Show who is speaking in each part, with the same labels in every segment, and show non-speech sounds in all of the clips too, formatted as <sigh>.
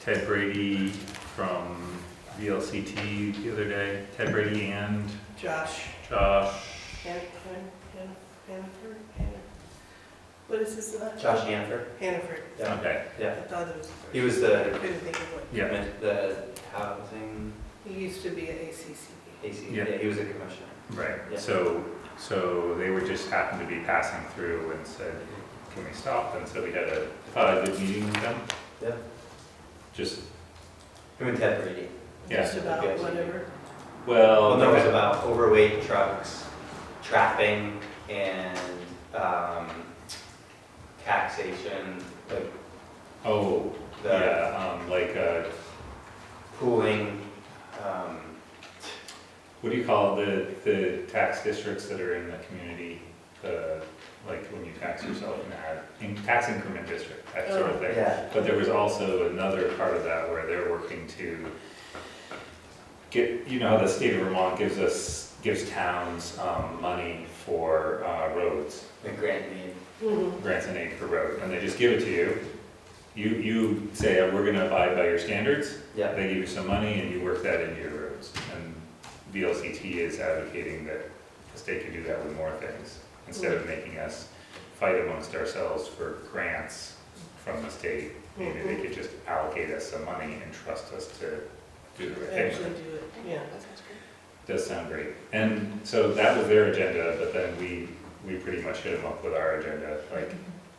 Speaker 1: Ted Brady from VLCT the other day. Ted Brady and
Speaker 2: Josh
Speaker 1: Josh.
Speaker 2: Han- Han- Han- Hannaford, Hanna- what is his last?
Speaker 3: Josh Hanford.
Speaker 2: Hannaford,
Speaker 3: Yeah.
Speaker 1: Okay,
Speaker 2: I thought it was,
Speaker 3: He was the,
Speaker 2: couldn't think of what,
Speaker 1: yeah,
Speaker 3: the housing,
Speaker 2: he used to be at ACCB.
Speaker 3: AC,
Speaker 1: Yeah.
Speaker 3: yeah, he was a commissioner.
Speaker 1: right.
Speaker 3: Yeah.
Speaker 1: So, so they were just happened to be passing through and said, can we stop? And so we had a, uh, good meeting with them.
Speaker 3: Yeah.
Speaker 1: Just,
Speaker 3: Him and Ted Brady.
Speaker 1: Yeah.
Speaker 2: Just about
Speaker 3: Okay.
Speaker 2: whatever,
Speaker 1: well.
Speaker 3: Well, there was about overweight trucks, trapping, and, um, taxation, like
Speaker 1: Oh,
Speaker 3: the
Speaker 1: yeah, um, like, uh,
Speaker 3: pooling, um,
Speaker 1: What do you call the, the tax districts that are in the community, the, like when you tax yourself in that, in tax increment district, that sort of thing?
Speaker 3: yeah.
Speaker 1: But there was also another part of that where they're working to get, you know, how the state of Vermont gives us, gives towns, um, money for, uh, roads,
Speaker 3: The grant need,
Speaker 2: Mhm.
Speaker 1: grants and aid for road, and they just give it to you. You, you say, "Uh, we're gonna abide by your standards,
Speaker 3: yeah,
Speaker 1: they give you some money and you work that into your roads. And VLCT is advocating that the state could do that with more things, instead of making us fight amongst ourselves for grants from the state. Maybe they could just allocate us some money and trust us to do the right thing.
Speaker 2: actually do it, yeah.
Speaker 1: Does sound great. And so that was their agenda, but then we, we pretty much hit them up with our agenda, like,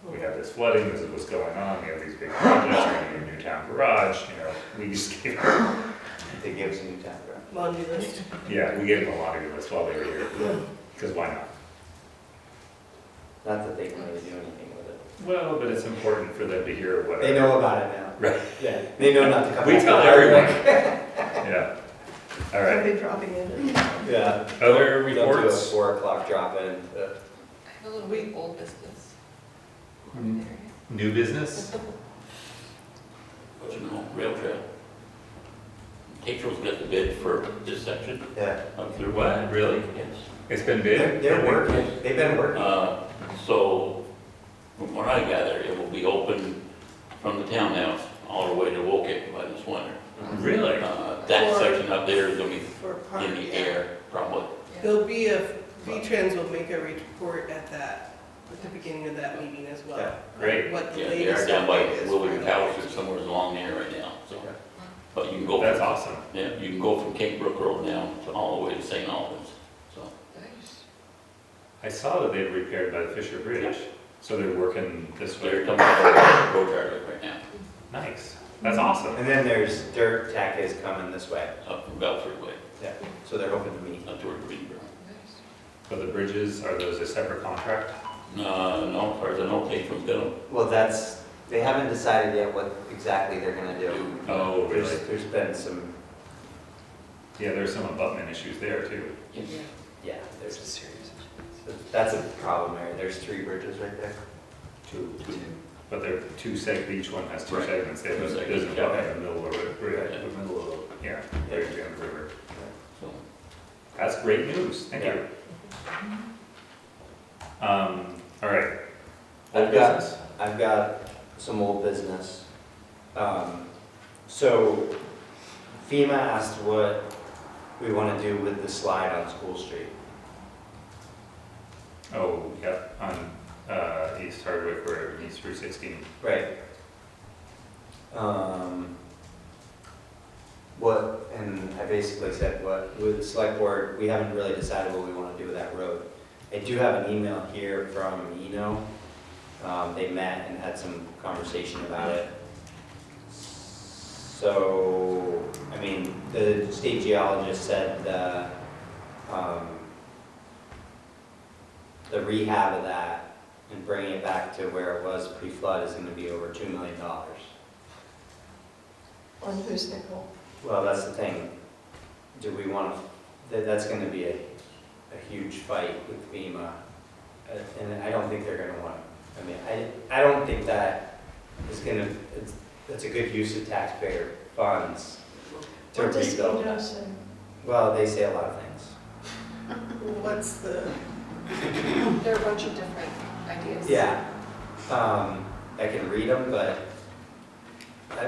Speaker 1: we have this flooding, this is what's going on, we have these big projects, we're gonna need a new town garage, you know, we just <laughs> gave
Speaker 3: they gave us a new town grant.
Speaker 2: Laundry list,
Speaker 1: Yeah, we gave them a laundry list while they were here, because why not?
Speaker 3: Not that they can really do anything with it.
Speaker 1: Well, but it's important for them to hear what.
Speaker 3: They know about it now.
Speaker 1: Right.
Speaker 3: Yeah, they know not to come.
Speaker 1: We
Speaker 3: back.
Speaker 1: tell everyone. <laughs> Yeah. All right,
Speaker 2: something dropping in.
Speaker 1: <laughs>
Speaker 3: Yeah.
Speaker 1: other
Speaker 3: Don't do a
Speaker 1: reports?
Speaker 3: Four o'clock drop in. uh,
Speaker 4: I have a little bit of old business.
Speaker 1: Mm. New business?
Speaker 5: Hudson Hall Rail Trail. April's got the bid for this section
Speaker 3: Yeah.
Speaker 5: up through.
Speaker 1: What? Really?
Speaker 5: Yes.
Speaker 1: It's been
Speaker 3: They're,
Speaker 1: bid?
Speaker 3: they're working, they've been working.
Speaker 5: Uh, So, from what I gather, it will be open from the townhouse all the way to Woket by this winter.
Speaker 1: Really?
Speaker 5: Uh, That
Speaker 2: For-
Speaker 5: section up there is gonna
Speaker 2: For
Speaker 5: be
Speaker 2: park,
Speaker 5: in the
Speaker 2: yeah.
Speaker 5: air, probably.
Speaker 2: There'll be a, V-Trans will make a report at that, at the beginning of that meeting as well.
Speaker 3: Yeah,
Speaker 1: great.
Speaker 2: What the
Speaker 5: Yeah, they are
Speaker 2: latest
Speaker 5: down by
Speaker 2: update is.
Speaker 5: Willoughby Towers or somewhere along there right now, so.
Speaker 3: Yeah.
Speaker 5: But you can go,
Speaker 1: That's awesome.
Speaker 5: yeah, you can go from Cape Brook Road now to all the way to St. Albans, so.
Speaker 1: I saw that they had repaired by the Fisher Bridge, so they're working this
Speaker 5: They're
Speaker 1: way.
Speaker 5: coming out of the road yard right now,
Speaker 1: Nice. That's awesome.
Speaker 3: And then there's dirt tack is coming this way,
Speaker 5: up from Belford Way,
Speaker 3: so they're hoping to meet.
Speaker 5: up toward Greenboro.
Speaker 1: But the bridges, are those a separate contract?
Speaker 5: No, no, as far as I know, they from Biddle.
Speaker 3: Well, that's, they haven't decided yet what exactly they're gonna do.
Speaker 1: Oh, really?
Speaker 3: There's, there's been some,
Speaker 1: Yeah, there's some abutment issues there too.
Speaker 3: yeah, there's a series. of- That's a problem there, there's three bridges right there.
Speaker 1: Two. But they're two seg, each one has two
Speaker 5: Right.
Speaker 1: segments, they have,
Speaker 5: Two segments,
Speaker 1: there's a
Speaker 5: yeah.
Speaker 1: bucket in the middle of it, right,
Speaker 5: Yeah.
Speaker 1: in the middle of, yeah,
Speaker 3: Yeah.
Speaker 1: right down the river.
Speaker 5: So,
Speaker 1: That's great news, thank you. Um, all right. Old
Speaker 3: I've got-
Speaker 1: business?
Speaker 3: I've got some old business. Um, So FEMA asked what we wanna do with the slide on School Street.
Speaker 1: Oh, yep, on, uh, East Hardwick Road, East Route sixteen.
Speaker 3: Right. Um, What, and I basically said, what, with the select board, we haven't really decided what we want to do with that road. I do have an email here from Eno. Um, They met and had some conversation about it. So, I mean, the state geologist said the, um, the rehab of that and bringing it back to where it was pre-flood is gonna be over two million dollars.
Speaker 4: On whose nickel?
Speaker 3: Well, that's the thing. Do we wanna, that, that's gonna be a, a huge fight with FEMA. Uh, And I don't think they're gonna wanna, I mean, I, I don't think that is gonna, it's, that's a good use of taxpayer funds to
Speaker 6: What does
Speaker 3: rebuild.
Speaker 6: Eno say?
Speaker 3: Well, they say a lot of things.
Speaker 2: What's the,
Speaker 4: There are a bunch of different ideas.
Speaker 3: Yeah, um, I can read them, but